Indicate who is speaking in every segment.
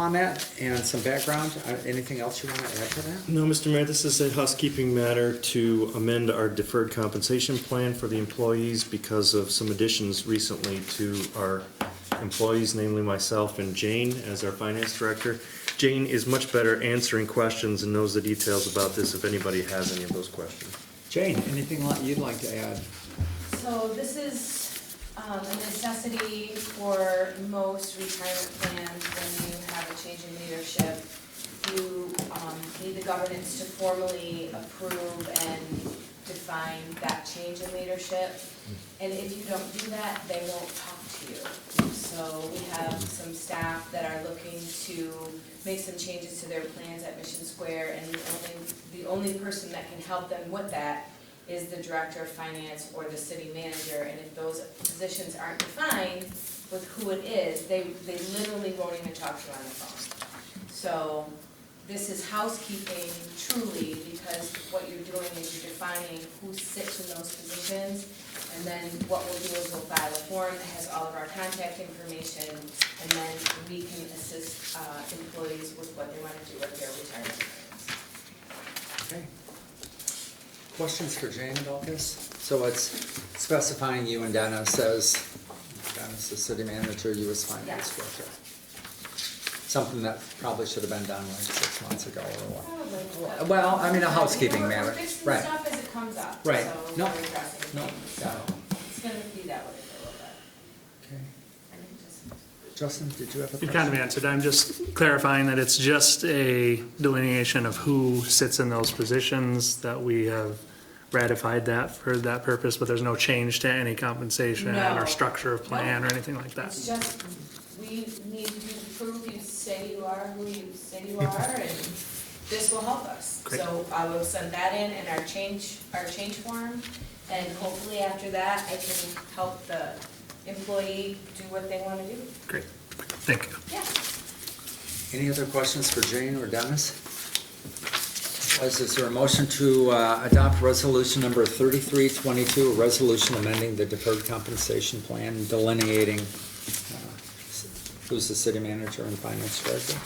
Speaker 1: on that and some background. Uh, Anything else you want to add to that?
Speaker 2: No, Mr. Mayor, this is a housekeeping matter to amend our deferred compensation plan for the employees because of some additions recently to our employees, namely myself and Jane as our finance director. Jane is much better answering questions and knows the details about this if anybody has any of those questions.
Speaker 1: Jane, anything li- you'd like to add?
Speaker 3: So this is um, a necessity for most retirement plans when you have a change in leadership. You um, need the governance to formally approve and define that change in leadership. And if you don't do that, they won't talk to you. So we have some staff that are looking to make some changes to their plans at Mission Square. And the only, the only person that can help them with that is the director of finance or the city manager, and if those positions aren't defined with who it is, they, they literally won't even talk to you on the phone. So, this is housekeeping truly, because what you're doing is you're defining who sits in those positions, and then what we'll do is we'll file a form that has all of our contact information, and then we can assist, uh, employees with what they wanna do with their retirement plans.
Speaker 1: Okay. Questions for Jane about this? So it's specifying you and Donna says, Donna's the city manager, you as finance
Speaker 3: Yes.
Speaker 1: director. Something that probably should have been done like six months ago or what.
Speaker 3: Probably.
Speaker 1: Well, I mean, a housekeeping
Speaker 3: We're-
Speaker 1: matter,
Speaker 3: We're fixing
Speaker 1: right.
Speaker 3: stuff as it comes up, so
Speaker 1: Right. No.
Speaker 3: we're addressing
Speaker 1: No,
Speaker 3: things,
Speaker 1: got
Speaker 3: so
Speaker 1: it.
Speaker 3: it's gonna be that way for a little bit.
Speaker 1: Okay.
Speaker 3: I think just-
Speaker 1: Justin, did you have a question?
Speaker 4: You've kind of answered. I'm just clarifying that it's just a delineation of who sits in those positions, that we have ratified that for that purpose, but there's no change to any compensation
Speaker 3: No.
Speaker 4: or structure of plan or anything like that.
Speaker 3: It's just, we need you to prove you say you are who you say you are, and this will help us.
Speaker 4: Great.
Speaker 3: So I will send that in and our change, our change form, and hopefully after that, I can help the employee do what they wanna do.
Speaker 4: Great, thank you.
Speaker 3: Yeah.
Speaker 1: Any other questions for Jane or Dennis? Is is there a motion to uh, adopt resolution number 3322, a resolution amending the deferred compensation plan delineating uh, s- who's the city manager and finance director?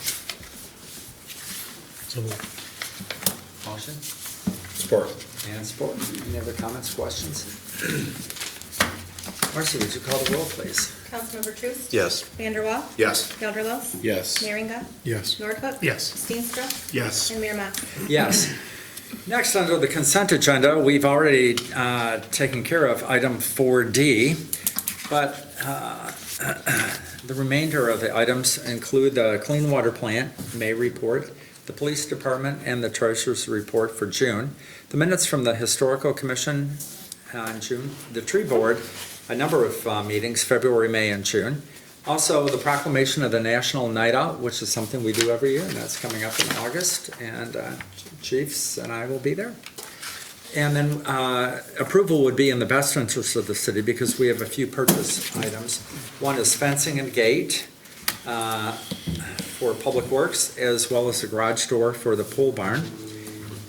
Speaker 1: Motion
Speaker 5: Support.
Speaker 1: and support. Any other comments, questions? Marcy, would you call the roll, please?
Speaker 6: Councilmember Truce.
Speaker 5: Yes.
Speaker 6: Vanderwall.
Speaker 5: Yes.
Speaker 6: Gelderlos.
Speaker 5: Yes.
Speaker 6: Merringa.
Speaker 5: Yes.
Speaker 6: Nordhook.
Speaker 4: Yes.
Speaker 6: Steenstra.
Speaker 5: Yes.
Speaker 6: And Mayor Mas.
Speaker 1: Yes. Next, under the consent agenda, we've already uh, taken care of item 4D, but uh, the remainder of the items include the Clean Water Plant May report, the Police Department, and the Treasurer's report for June, the minutes from the Historical Commission on June, the Tree Board, a number of uh, meetings, February, May, and June. Also, the proclamation of the National Night Out, which is something we do every year, and that's coming up in August, and uh, Chiefs and I will be there. And then uh, approval would be in the best interest of the city because we have a few purchase items. One is fencing and gate uh, for Public Works, as well as the garage door for the pool barn.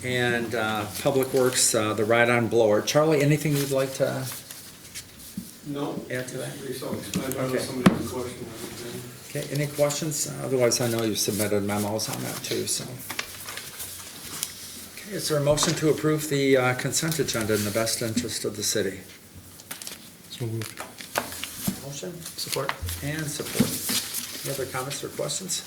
Speaker 1: And uh, Public Works, uh, the ride-on blower. Charlie, anything you'd like to
Speaker 7: No,
Speaker 1: add to that?
Speaker 7: we saw, I know
Speaker 1: Okay.
Speaker 7: somebody's question. I think.
Speaker 1: Okay, any questions? Otherwise, I know you submitted memos on that too, so. Okay, is there a motion to approve the uh, consent agenda in the best interest of the city? Motion
Speaker 4: Support?
Speaker 1: and support. Any other comments or questions?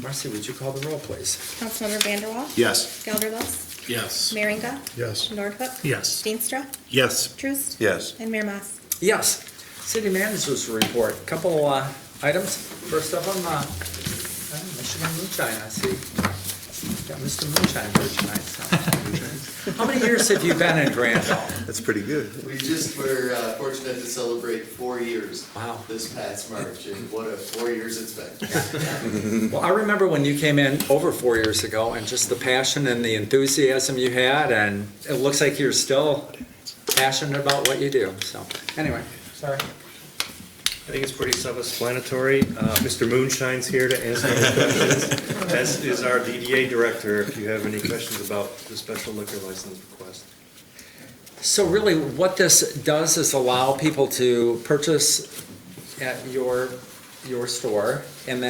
Speaker 1: Marcy, would you call the roll, please?
Speaker 6: Councilmember Vanderwall.
Speaker 5: Yes.
Speaker 6: Gelderlos.
Speaker 5: Yes.
Speaker 6: Merringa.
Speaker 5: Yes.
Speaker 6: Nordhook.
Speaker 4: Yes.
Speaker 6: Steenstra.
Speaker 5: Yes.
Speaker 6: Truce.
Speaker 5: Yes.
Speaker 6: And Mayor Mas.
Speaker 1: Yes, city managers report, couple uh, items. First of them, uh, Michigan Moonshine, I see. Got Mr. Moonshine here tonight. so. How many years have you been in Granville?
Speaker 5: That's pretty good.
Speaker 8: We just were uh, fortunate to celebrate four years.
Speaker 1: Wow.
Speaker 8: This past March, and what a four years it's been.
Speaker 1: Well, I remember when you came in over four years ago and just the passion and the enthusiasm you had, and it looks like you're still passionate about what you do, so, anyway, sorry.
Speaker 2: I think it's pretty self-explanatory. Uh, Mr. Moonshine's here to answer any questions, as is our DDA director, if you have any questions about the special liquor license request.
Speaker 1: So really, what this does is allow people to purchase at your, your store, and then